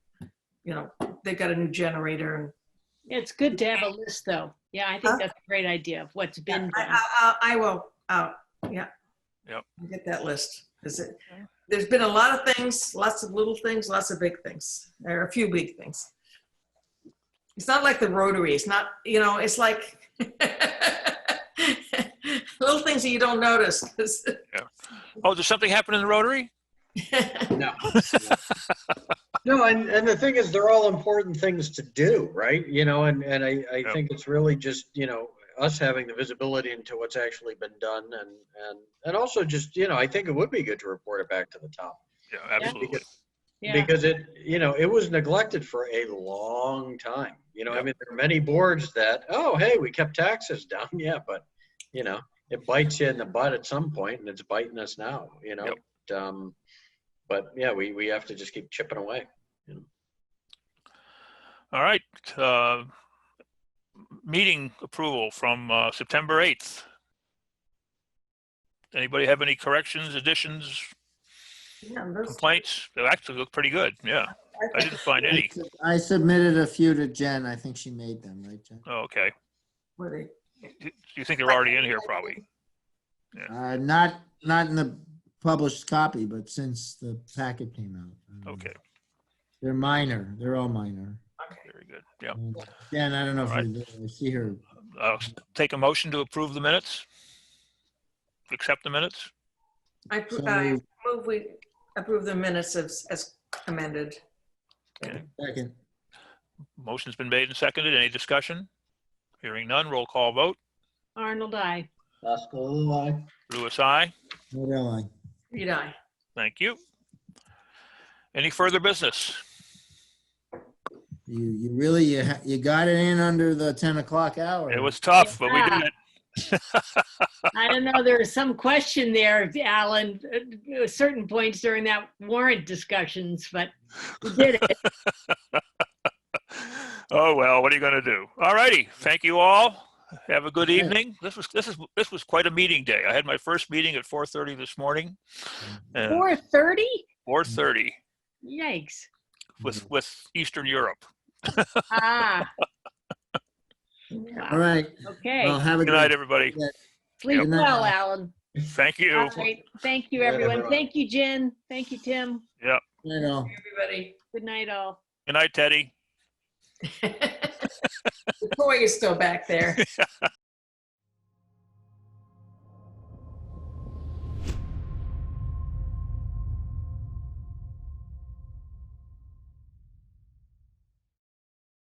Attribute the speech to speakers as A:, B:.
A: you know, they got a new generator and
B: It's good to have a list, though. Yeah, I
A: Huh?
B: think that's a great idea of what's been
A: I,
B: done.
A: I- I, I will, out, yeah.
C: Yep.
A: I'll Get that list, 'cause it, there's been a lot of things, lots of little things, lots of big things, or a few big things. It's not like the Rotary, it's not, you know, it's like little things that you don't notice. 'cause-
C: Oh, did something happen in the Rotary?
D: No. No, and, and the thing is, they're all important things to do, right? You know, and, and I, I
C: Yeah.
D: think it's really just, you know, us having the visibility into what's actually been done and, and, and also just, you know, I think it would be good to report it back to the top.
C: Yeah, absolutely.
D: Because,
B: Yeah,
D: because it, you know, it was neglected for a long time. You know, I
C: Yeah.
D: mean, there are many boards that, oh, hey, we kept taxes down. Yeah, but, you know, it bites you in the butt at some point and it's biting us now, you know? Um, but yeah, we, we have to just keep chipping away.
C: All right. uh, Meeting approval from uh, September 8th. Anybody have any corrections, additions,
A: Yeah, those-
C: complaints? They actually look pretty good. Yeah, I didn't find any.
E: I submitted a few to Jen. I think she made them, right, Jen?
C: Oh, Okay.
A: were they-
C: You- You think they're already in here probably?
E: Uh, not, not in the published copy, but since the packet came out. Um,
C: Okay,
E: They're minor. They're all minor.
C: very good. Yeah.
E: Um, Jen, I don't know if
C: All
E: you're there. I see her.
C: I'll s- take a motion to approve the minutes. Accept the minutes.
A: I,
E: So
A: I
E: moved.
A: move we approve the minutes as, as amended.
E: Second,
C: Motion's been made and seconded. Any discussion? Hearing none, roll call vote.
B: Arnold, I.
C: Louis, I.
E: What line?
A: Reed, I.
C: Thank you. Any further business?
E: You, you really, you, ha- you got it in under the 10 o'clock hour.
C: It was tough, but we did it.
B: I don't know, there was some question there, Alan, at certain points during that warrant discussions, but we did it.
C: Oh, well, what are you going to do? All righty. Thank you all. Have a good evening. This was, this is, this was quite a meeting day. I had my first meeting at 4:30 this morning. and
B: 4:30?
C: 4:30
B: Yikes.
C: with, with Eastern Europe.
B: Ah,
E: All right. Well,
B: okay.
E: have a
C: Good
E: good
C: night, everybody.
B: Sleep
E: Good night,
B: well,
E: Alan.
B: Alan.
C: Thank you.
B: All right, thank you,
D: Good night,
B: everyone.
D: everyone.
B: Thank you, Jen. Thank you, Tim.
E: night, all.
A: Everybody.
B: Good night, all.
C: Good night, Teddy.
A: The toy is still back there.